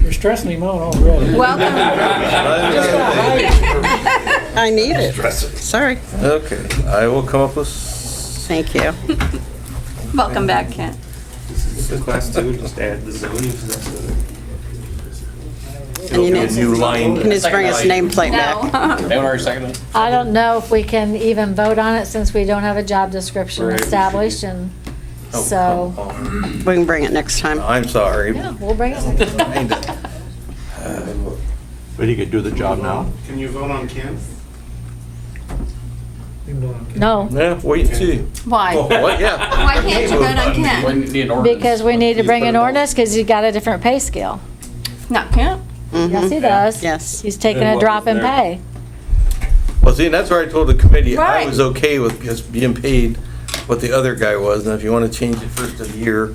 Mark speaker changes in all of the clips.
Speaker 1: You're stressing him out already.
Speaker 2: Welcome.
Speaker 1: Just got hired.
Speaker 3: I need it. Sorry.
Speaker 4: Okay, I will come up with. s-
Speaker 3: Thank you.
Speaker 2: Welcome back, Kent.
Speaker 5: So class two, just add the zoning to that.
Speaker 3: And you need-
Speaker 4: New line.
Speaker 3: You need to bring his nameplate back.
Speaker 2: No.
Speaker 6: Anyone already seconded? it?
Speaker 7: I don't know if we can even vote on it since we don't have a job description
Speaker 5: Right.
Speaker 7: established and
Speaker 4: oh,
Speaker 7: so,
Speaker 4: oh,
Speaker 3: We can bring it next
Speaker 4: oh.
Speaker 3: time.
Speaker 4: I'm sorry.
Speaker 7: yeah, we'll bring it.
Speaker 8: But he could do the job now.
Speaker 5: Can you vote on Ken?
Speaker 7: No,
Speaker 4: Yeah, wait and see. Oh,
Speaker 2: Why?
Speaker 4: what? Yeah.
Speaker 2: Why can't you vote on Kent?
Speaker 6: We need an ordinance.
Speaker 7: because we need to bring an ordinance because he's got a different pay scale.
Speaker 2: Not Kent?
Speaker 7: Yes, he does.
Speaker 3: Mm-hmm. Yes.
Speaker 7: He's taking
Speaker 4: And
Speaker 7: a
Speaker 4: what
Speaker 7: drop
Speaker 4: was
Speaker 7: in
Speaker 4: there?
Speaker 7: pay.
Speaker 4: Well, see, and that's where I told the committee I
Speaker 2: Right.
Speaker 4: was okay with just being paid what the other guy was. And if you want to change it first of the year,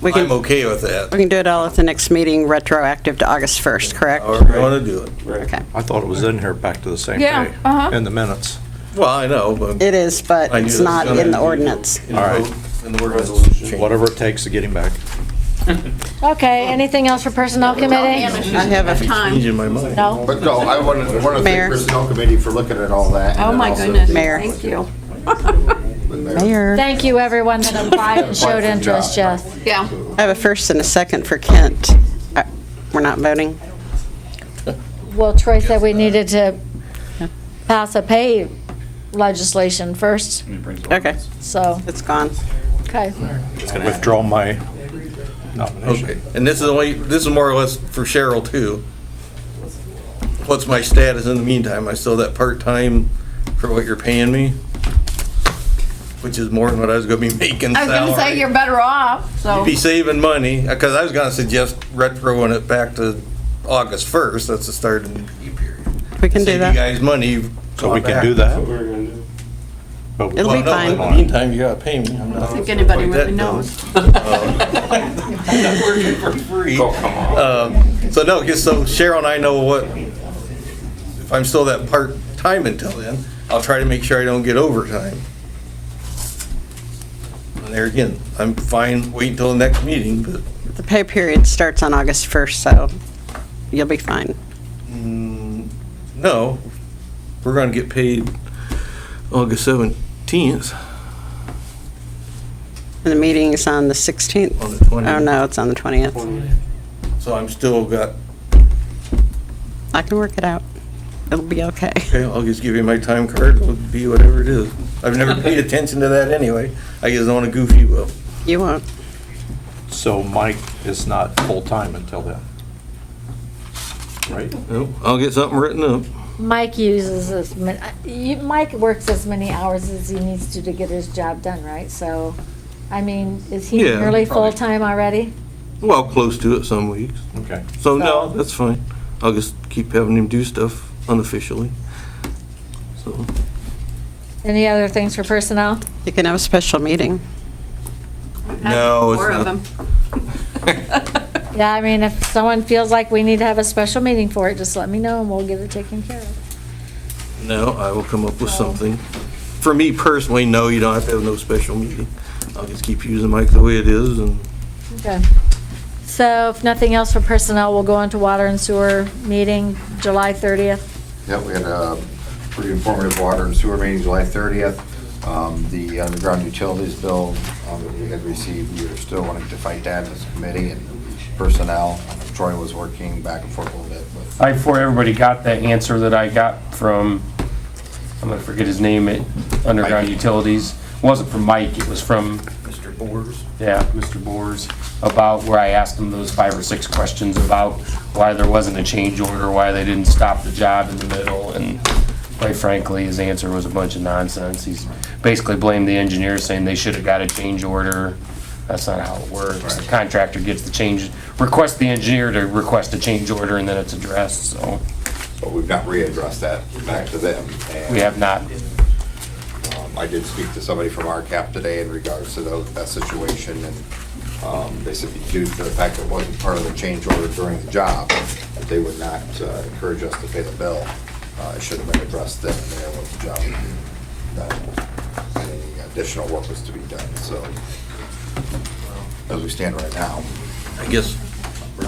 Speaker 3: We
Speaker 4: I'm
Speaker 3: can,
Speaker 4: okay with that.
Speaker 3: we can do it all at the next meeting, retroactive to August 1st, correct?
Speaker 4: However you want to do it.
Speaker 3: Okay.
Speaker 8: I thought it was in here back to the same day.
Speaker 2: Yeah, uh-huh.
Speaker 8: In the minutes.
Speaker 4: Well, I know, but.
Speaker 3: It is, but
Speaker 4: I knew
Speaker 3: it's
Speaker 4: that was
Speaker 3: not
Speaker 4: gonna
Speaker 3: in the
Speaker 4: be-
Speaker 3: ordinance.
Speaker 4: in the
Speaker 8: All right.
Speaker 4: vote, In the word resolution.
Speaker 8: Whatever it takes to get him back.
Speaker 7: Okay, anything else for personnel
Speaker 2: Oh,
Speaker 7: committee?
Speaker 3: I have a-
Speaker 2: Time.
Speaker 4: Changing my mind.
Speaker 7: No?
Speaker 9: But no, I want to, want to
Speaker 3: Mayor.
Speaker 9: thank personnel committee for looking at all that. and
Speaker 2: Oh,
Speaker 9: then
Speaker 2: my
Speaker 9: also
Speaker 2: goodness.
Speaker 3: Mayor.
Speaker 2: Thank you.
Speaker 9: the mayor.
Speaker 3: Mayor.
Speaker 7: Thank you, everyone that applied and showed interest, Jess.
Speaker 2: Yeah.
Speaker 3: I have a first and a second for Kent. Uh, We're not voting?
Speaker 7: Well, Troy said we needed to pass a pay legislation first,
Speaker 6: It brings
Speaker 3: Okay,
Speaker 7: so,
Speaker 3: it's gone.
Speaker 7: okay.
Speaker 8: Withdraw my nomination.
Speaker 4: Okay, and this is only, this is more or less for Cheryl too. What's my status in the meantime? Am I still that part-time for what you're paying me? Which is more than what I was gonna be making
Speaker 2: I was gonna say
Speaker 4: salary.
Speaker 2: you're better off, so.
Speaker 4: You'd Be saving money, uh, cause I was gonna suggest retroing it back to August first, that's the start of the new period.
Speaker 3: We can do
Speaker 4: Save you
Speaker 3: that.
Speaker 4: guys money.
Speaker 8: So we can
Speaker 4: back.
Speaker 8: do
Speaker 5: What
Speaker 8: that.
Speaker 5: we're gonna do.
Speaker 8: but we-
Speaker 3: It'll
Speaker 4: Well,
Speaker 3: be
Speaker 4: no, but in
Speaker 3: fine.
Speaker 4: the meantime, you gotta pay me. I'm not-
Speaker 2: think anybody
Speaker 4: like
Speaker 2: really
Speaker 4: that, no.
Speaker 2: knows.
Speaker 4: I'm not working for free.
Speaker 5: Oh, come on.
Speaker 4: Um, So no, just so Cheryl and I know what, if I'm still that part-time until then, I'll try to make sure I don't get overtime. And there again, I'm fine waiting until the next meeting, but
Speaker 3: The pay period starts on August 1st, so you'll be fine.
Speaker 4: mm, no, we're gonna get paid August 17th
Speaker 3: And the meeting's on the 16th.
Speaker 4: on the 20th.
Speaker 3: Oh, no, it's on the 20th.
Speaker 4: So I'm still got,
Speaker 3: I can work it out. It'll be okay.
Speaker 4: okay, I'll just give you my time card, it'll be whatever it is. I've never paid attention to that anyway. I just don't wanna goof you up.
Speaker 3: You won't.
Speaker 8: So Mike is not full-time until then. Right?
Speaker 4: Nope, I'll get something written up.
Speaker 7: Mike uses as many, you, Mike works as many hours as he needs to to get his job done, right? So, I mean, is he
Speaker 4: Yeah,
Speaker 7: nearly
Speaker 6: probably.
Speaker 7: full-time already?
Speaker 4: Well, close to it some weeks.
Speaker 8: Okay.
Speaker 4: So no,
Speaker 7: So-
Speaker 4: that's fine. I'll just keep having him do stuff unofficially. So,
Speaker 7: Any other things for personnel?
Speaker 3: You can have a special meeting.
Speaker 4: No, it's
Speaker 2: Four of
Speaker 4: not.
Speaker 2: them.
Speaker 7: Yeah, I mean, if someone feels like we need to have a special meeting for it, just let me know and we'll get it taken care of.
Speaker 4: no, I will come up with something. For me personally, no, you don't have to have no special meeting. I'll just keep using Mike the way it is and
Speaker 7: Okay. So if nothing else for personnel, we'll go on to water and sewer meeting, July 30th.
Speaker 9: Yeah, we had a pretty informative water and sewer meeting July 30th. Um, The underground utilities bill um, that we had received, we were still wanting to fight that as a committee and personnel. Troy was working back and forth a little bit, but
Speaker 10: I, before everybody got the answer that I got from, I'm gonna forget his name, at Underground Utilities. Wasn't from Mike, it was from,
Speaker 4: Mr. Boers.
Speaker 10: yeah, Mr. Boers, about where I asked him those five or six questions about why there wasn't a change order, why they didn't stop the job in the middle, and quite frankly, his answer was a bunch of nonsense. He's basically blamed the engineer, saying they should've got a change order. That's not how it works. The contractor gets the change, requests the engineer to request a change order, and then it's addressed, so.
Speaker 9: but we've not readdressed that back to them. And,
Speaker 10: We have not.
Speaker 9: um, I did speak to somebody from RCAP today in regards to tho- that situation, and um, they said due to the fact that it wasn't part of the change order during the job, that they would not uh, encourage us to pay the bill. Uh, It should have been addressed then and there was the job to be done. And Any additional work was to be done, so as we stand right now.
Speaker 4: I guess